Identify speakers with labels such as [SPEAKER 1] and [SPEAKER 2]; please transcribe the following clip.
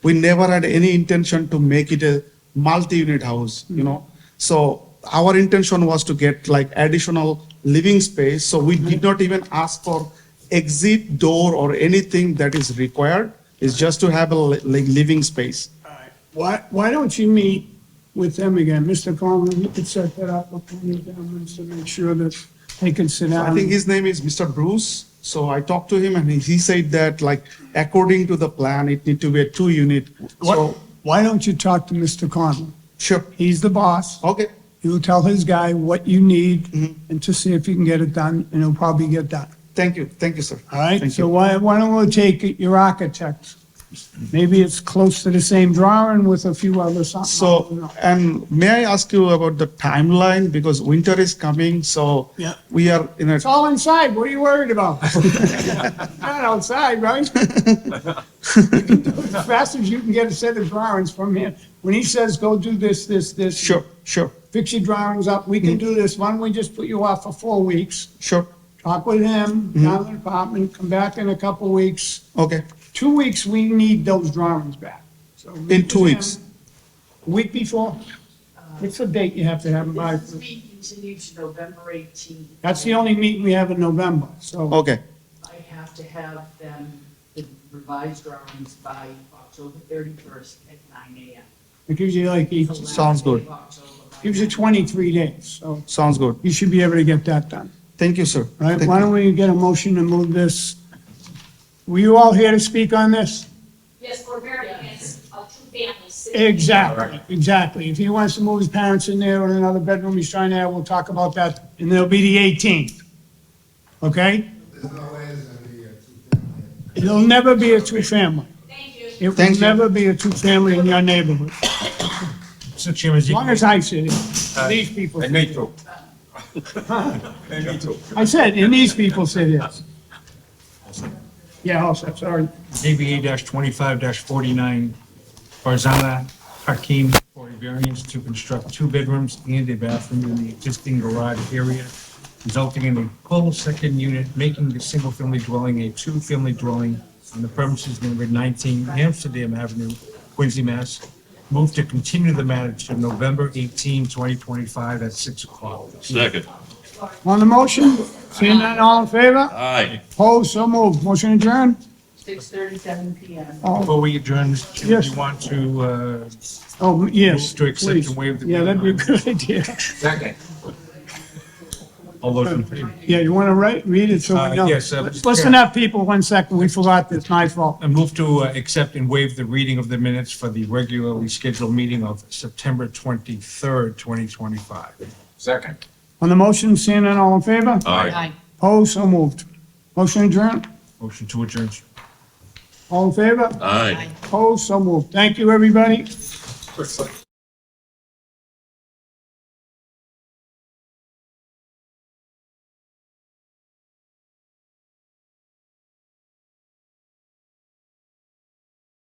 [SPEAKER 1] We never had any intention to make it a multi-unit house,
[SPEAKER 2] Hmm.
[SPEAKER 1] you know. So our intention was to get like additional living space, so
[SPEAKER 2] Hmm.
[SPEAKER 1] we did not even ask for exit door or anything that is required. It's just to have a li- like living space.
[SPEAKER 2] All right. Why, why don't you meet with them again? Mr. Coleman, you could set that up with one of them to make sure that they can sit down.
[SPEAKER 1] I think his name is Mr. Bruce. So I talked to him and he- he said that like according to the plan, it need to be a two unit.
[SPEAKER 2] Why-
[SPEAKER 1] So,
[SPEAKER 2] Why don't you talk to Mr. Conlon?
[SPEAKER 1] sure,
[SPEAKER 2] He's the boss.
[SPEAKER 1] okay,
[SPEAKER 2] He'll tell his guy what you need
[SPEAKER 1] Mm-hmm.
[SPEAKER 2] and to see if he can get it done, and he'll probably get done.
[SPEAKER 1] thank you, thank you, sir.
[SPEAKER 2] All right,
[SPEAKER 1] Thank
[SPEAKER 2] so
[SPEAKER 1] you.
[SPEAKER 2] why, why don't we take your architect? Maybe it's close to the same drawing with a few other something. I don't
[SPEAKER 1] So,
[SPEAKER 2] know.
[SPEAKER 1] and may I ask you about the timeline because winter is coming, so
[SPEAKER 2] Yeah.
[SPEAKER 1] we are in a,
[SPEAKER 2] It's all inside, what are you worried about? Not outside, right? You can do it As fast as you can get a set of drawings from him, when he says, go do this, this, this.
[SPEAKER 1] sure, Mm-hmm. sure,
[SPEAKER 2] Fix your drawings up, we can do this, why don't we just put you off for four weeks?
[SPEAKER 1] sure,
[SPEAKER 2] Talk with him,
[SPEAKER 1] Mm-hmm.
[SPEAKER 2] down in the department, come back in a couple weeks.
[SPEAKER 1] okay,
[SPEAKER 2] Two weeks, we need those drawings back. So meet
[SPEAKER 1] In two
[SPEAKER 2] with
[SPEAKER 1] weeks.
[SPEAKER 2] him. Week before? It's the date you have to have them by?
[SPEAKER 3] This meeting continued to November 18th.
[SPEAKER 2] That's the only meeting we have in November, so
[SPEAKER 1] okay,
[SPEAKER 3] I have to have them, the revised drawings by October 31st at 9 a.m.
[SPEAKER 2] it gives you like, eight-
[SPEAKER 3] The last
[SPEAKER 1] Sounds good.
[SPEAKER 3] day of October by
[SPEAKER 2] gives you 23 days, so
[SPEAKER 1] sounds good.
[SPEAKER 2] you should be able to get that done,
[SPEAKER 1] Thank you, sir.
[SPEAKER 2] all right?
[SPEAKER 1] Thank
[SPEAKER 2] Why
[SPEAKER 1] you.
[SPEAKER 2] don't we get a motion to move this? Were you all here to speak on this?
[SPEAKER 4] Yes, we're very against uh, two families. sitting in
[SPEAKER 2] Exactly, exactly. If he wants to move his parents in there or another bedroom he's trying to have, we'll talk about that, and it'll be the 18th. Okay?
[SPEAKER 5] There's no way it's gonna be a two-family.
[SPEAKER 2] It'll never be a two-family.
[SPEAKER 4] Thank you.
[SPEAKER 2] It
[SPEAKER 1] Thank
[SPEAKER 2] will
[SPEAKER 1] you.
[SPEAKER 2] never be a two-family in your neighborhood,
[SPEAKER 6] Mr. Chairman, as
[SPEAKER 2] as
[SPEAKER 6] you-
[SPEAKER 2] long as I sit
[SPEAKER 6] Uh,
[SPEAKER 2] here. These people.
[SPEAKER 7] And me too. And me too.
[SPEAKER 2] I said, and these people said yes. Yeah, also, sorry.
[SPEAKER 6] ZBA-25-49, Farzana Hakim for a variance to construct two bedrooms and a bathroom in the existing garage area, resulting in a full second unit, making the single-family dwelling a two-family dwelling on the premises number 19 Amsterdam Avenue, Quincy, Mass. Move to continue the matter to November 18, 2025 at 6 o'clock.
[SPEAKER 8] Second.
[SPEAKER 2] On the motion, seeing none, all in favor?
[SPEAKER 8] Aye.
[SPEAKER 2] Opposed, so moved. Motion adjourned?
[SPEAKER 3] 6:37 p.m.
[SPEAKER 2] Oh,
[SPEAKER 6] Before we adjourn, Mr. Chairman, do
[SPEAKER 2] Yes.
[SPEAKER 6] you want to uh,
[SPEAKER 2] oh, yes,
[SPEAKER 6] Move to accept and
[SPEAKER 2] please.
[SPEAKER 6] waive the-
[SPEAKER 2] Yeah, that'd be a good idea.
[SPEAKER 7] Second.
[SPEAKER 6] All those in favor?
[SPEAKER 2] Yeah, you want to write, read it so we
[SPEAKER 6] Uh,
[SPEAKER 2] know?
[SPEAKER 6] yes, uh,
[SPEAKER 2] Let's Listen up, people, one second, we forgot, it's my fault.
[SPEAKER 6] I move to uh, accept and waive the reading of the minutes for the regularly scheduled meeting of September 23rd, 2025.
[SPEAKER 7] Second.
[SPEAKER 2] On the motion, seeing none, all in favor?
[SPEAKER 8] Aye.
[SPEAKER 2] Opposed, so moved. Motion adjourned?
[SPEAKER 6] Motion to adjourn.
[SPEAKER 2] All in favor?
[SPEAKER 8] Aye.
[SPEAKER 2] Opposed, so moved. Thank you, everybody.
[SPEAKER 7] Quick, quick.